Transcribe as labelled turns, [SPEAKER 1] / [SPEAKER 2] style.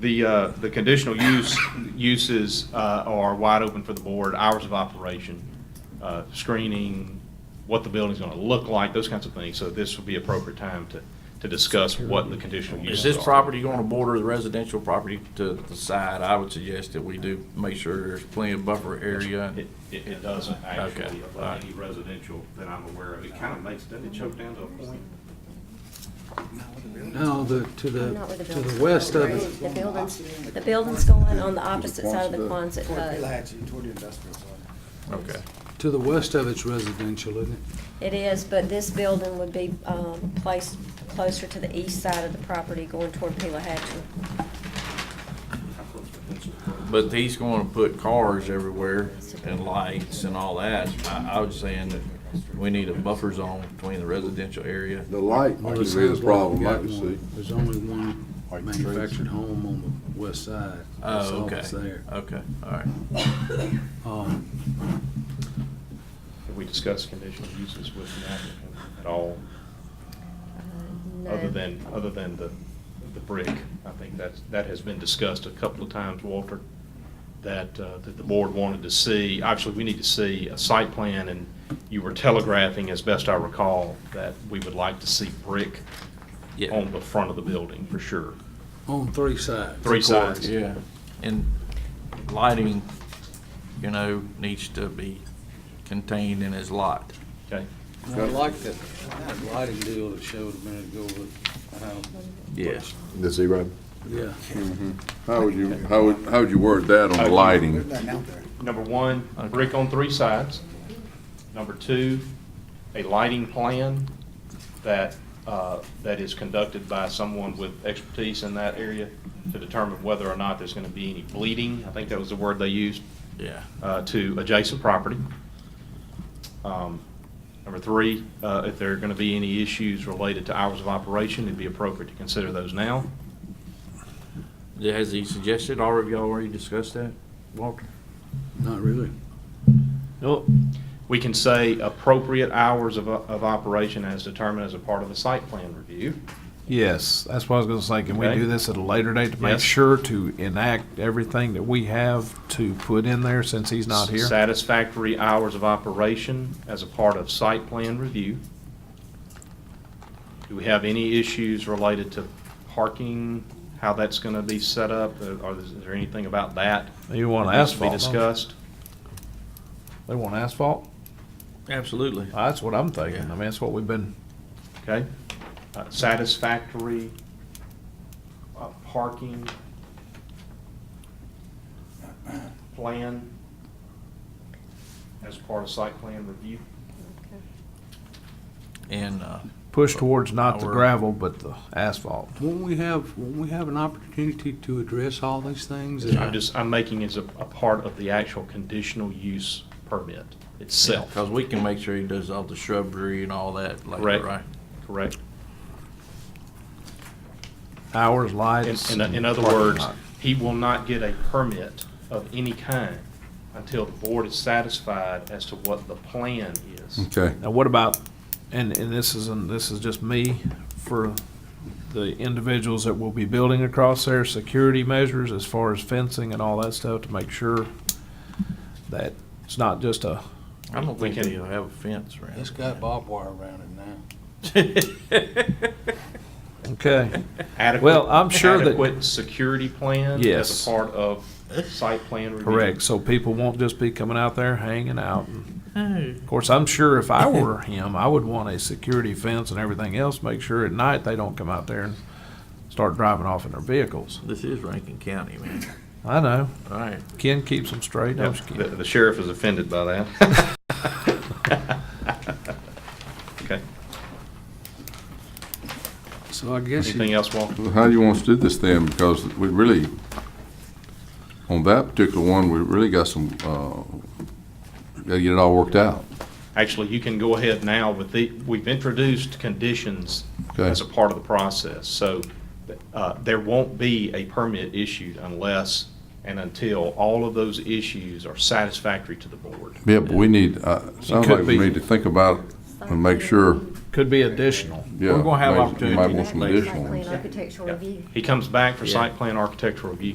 [SPEAKER 1] The, uh, the conditional use, uses uh, are wide open for the board, hours of operation, uh, screening, what the building's going to look like, those kinds of things. So this would be appropriate time to, to discuss what the conditional uses
[SPEAKER 2] Is
[SPEAKER 1] are.
[SPEAKER 2] this property going to border the residential property to the side? I would suggest that we do make sure there's plenty of buffer area.
[SPEAKER 1] It, it it doesn't
[SPEAKER 2] Okay,
[SPEAKER 1] actually,
[SPEAKER 2] all right.
[SPEAKER 1] of any residential that I'm aware of. It kind of makes, doesn't it choke down to a point?
[SPEAKER 3] No, Oh, the, to the,
[SPEAKER 4] Not with the
[SPEAKER 3] to
[SPEAKER 4] buildings.
[SPEAKER 3] the west of it.
[SPEAKER 4] The buildings, the buildings going on the opposite side of the uh, Quonset hut.
[SPEAKER 5] toward the industrial zone.
[SPEAKER 2] Okay.
[SPEAKER 3] To the west of it's residential, isn't it?
[SPEAKER 4] It is, but this building would be um, placed closer to the east side of the property going toward Pila Hatchery.
[SPEAKER 2] But he's going to put cars everywhere and lights and all that. I, I was saying that we need a buffer zone between the residential area.
[SPEAKER 6] The light
[SPEAKER 3] Well,
[SPEAKER 6] could
[SPEAKER 3] it
[SPEAKER 6] be a
[SPEAKER 3] sounds like we
[SPEAKER 6] problem, I
[SPEAKER 3] got
[SPEAKER 6] can see.
[SPEAKER 3] one. There's only one
[SPEAKER 6] Like trees.
[SPEAKER 3] manufactured home on the west side. That's
[SPEAKER 2] Oh,
[SPEAKER 3] all
[SPEAKER 2] okay.
[SPEAKER 3] that's there.
[SPEAKER 2] Okay, all right.
[SPEAKER 3] Um,
[SPEAKER 1] Have we discussed conditional uses with the applicant at all,
[SPEAKER 4] Uh, no.
[SPEAKER 1] other than, other than the, the brick? I think that's, that has been discussed a couple of times, Walter, that, uh, that the board wanted to see. Obviously, we need to see a site plan, and you were telegraphing, as best I recall, that we would like to see brick
[SPEAKER 2] Yeah.
[SPEAKER 1] on the front of the building, for sure.
[SPEAKER 3] On three sides.
[SPEAKER 1] Three sides.
[SPEAKER 2] Yeah, and lighting, you know, needs to be contained in his lot.
[SPEAKER 1] Okay?
[SPEAKER 3] I like that that lighting deal that showed a minute ago with, how-
[SPEAKER 2] Yes.
[SPEAKER 6] The zero.
[SPEAKER 3] yeah.
[SPEAKER 6] How would you, how would, how would you word that on the
[SPEAKER 5] There's
[SPEAKER 6] lighting?
[SPEAKER 5] nothing out there.
[SPEAKER 1] Number one, brick on three sides. Number two, a lighting plan that, uh, that is conducted by someone with expertise in that area to determine whether or not there's going to be any bleeding, I think that was the word they used,
[SPEAKER 2] Yeah.
[SPEAKER 1] uh, to adjacent property. Um, Number three, uh, if there are going to be any issues related to hours of operation, it'd be appropriate to consider those now.
[SPEAKER 2] Yeah, Has he suggested, or have y'all already discussed that, Walter?
[SPEAKER 3] Not really.
[SPEAKER 1] Nope. We can say appropriate hours of, of operation as determined as a part of the site plan review.
[SPEAKER 7] Yes, that's what I was gonna say. Can we
[SPEAKER 1] Okay.
[SPEAKER 7] do this at a later date to make
[SPEAKER 1] Yes.
[SPEAKER 7] sure to enact everything that we have to put in there since he's not here?
[SPEAKER 1] Satisfactory hours of operation as a part of site plan review. Do we have any issues related to parking, how that's gonna be set up, or is there anything about that?
[SPEAKER 7] You want
[SPEAKER 1] that needs to Be
[SPEAKER 7] asphalt, don't you?
[SPEAKER 1] discussed.
[SPEAKER 7] They want asphalt?
[SPEAKER 2] Absolutely.
[SPEAKER 7] That's what I'm thinking. I mean, that's what we've been,
[SPEAKER 1] Okay. Uh, Satisfactory uh, parking plan as part of site plan review.
[SPEAKER 2] And, uh,
[SPEAKER 7] push towards not the
[SPEAKER 2] Our-
[SPEAKER 7] gravel, but the asphalt.
[SPEAKER 3] Won't we have, won't we have an opportunity to address all these things?
[SPEAKER 1] I'm just, I'm making as a, a part of the actual conditional use permit itself,
[SPEAKER 2] cause we can make sure he does all the shrubbery and all that later,
[SPEAKER 1] Correct.
[SPEAKER 2] right?
[SPEAKER 1] correct?
[SPEAKER 7] Hours,
[SPEAKER 1] In,
[SPEAKER 7] lights.
[SPEAKER 1] in, in
[SPEAKER 7] and
[SPEAKER 1] other
[SPEAKER 7] parking
[SPEAKER 1] words,
[SPEAKER 7] lot.
[SPEAKER 1] he will not get a permit of any kind until the board is satisfied as to what the plan is.
[SPEAKER 6] Okay,
[SPEAKER 7] Now, what about, and, and this is, and this is just me, for the individuals that will be building across there, security measures as far as fencing and all that stuff to make sure that it's not just a,
[SPEAKER 2] I don't
[SPEAKER 1] We
[SPEAKER 2] think
[SPEAKER 1] can-
[SPEAKER 2] he'll have a fence around.
[SPEAKER 3] It's got barbed wire around it now.
[SPEAKER 7] okay.
[SPEAKER 1] Adequate-
[SPEAKER 7] Well, I'm sure that-
[SPEAKER 1] Adequate security plan as
[SPEAKER 7] Yes.
[SPEAKER 1] a part of site plan review.
[SPEAKER 7] Correct, so people won't just be coming out there hanging out. Of course, I'm sure if I were him, I would want a security fence and everything else, make sure at night they don't come out there and start driving off in their vehicles.
[SPEAKER 2] This is Rankin County, man.
[SPEAKER 7] I know,
[SPEAKER 2] All right.
[SPEAKER 7] Ken keeps them straight, don't you,
[SPEAKER 1] The
[SPEAKER 7] Ken?
[SPEAKER 1] the sheriff is offended by that. Okay,
[SPEAKER 3] So I guess
[SPEAKER 1] anything
[SPEAKER 3] you,
[SPEAKER 1] else, Walter?
[SPEAKER 6] how do you want us to do this then? Because we really, on that particular one, we really got some, uh, gotta get it all worked out.
[SPEAKER 1] Actually, you can go ahead now with the, we've introduced conditions
[SPEAKER 6] Okay.
[SPEAKER 1] as a part of the process. So uh, there won't be a permit issued unless and until all of those issues are satisfactory to the board.
[SPEAKER 6] Yeah, but we need, uh, sounds
[SPEAKER 7] could
[SPEAKER 6] like we
[SPEAKER 7] be.
[SPEAKER 6] need to think about and make sure
[SPEAKER 7] could be additional.
[SPEAKER 6] Yeah,
[SPEAKER 2] We're gonna have
[SPEAKER 6] maybe- you
[SPEAKER 2] opportunity
[SPEAKER 6] Might
[SPEAKER 2] to
[SPEAKER 6] want some
[SPEAKER 2] make-
[SPEAKER 6] additional
[SPEAKER 4] Site
[SPEAKER 6] ones.
[SPEAKER 4] plan architectural review.
[SPEAKER 1] He comes back for
[SPEAKER 2] Yeah.
[SPEAKER 1] site plan architectural review.